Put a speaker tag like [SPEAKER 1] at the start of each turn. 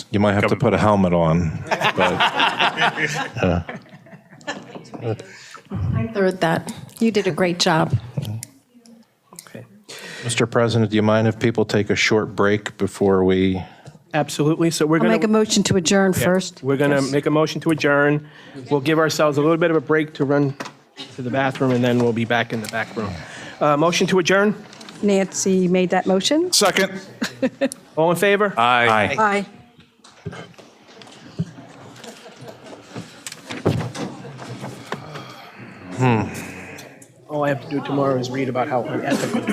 [SPEAKER 1] You might have to put a helmet on. But
[SPEAKER 2] I third that. You did a great job.
[SPEAKER 1] Mr. President, do you mind if people take a short break before we?
[SPEAKER 3] Absolutely. So we're
[SPEAKER 2] I'll
[SPEAKER 3] going
[SPEAKER 2] make a
[SPEAKER 3] to,
[SPEAKER 2] motion to adjourn first.
[SPEAKER 3] we're going to make a motion to adjourn. We'll give ourselves a little bit of a break to run to the bathroom, and then we'll be back in the back room. Uh, Motion to adjourn?
[SPEAKER 2] Nancy made that motion.
[SPEAKER 4] Second.
[SPEAKER 3] All in favor?
[SPEAKER 1] Aye.
[SPEAKER 2] Aye.
[SPEAKER 3] All I have to do tomorrow is read about how unethical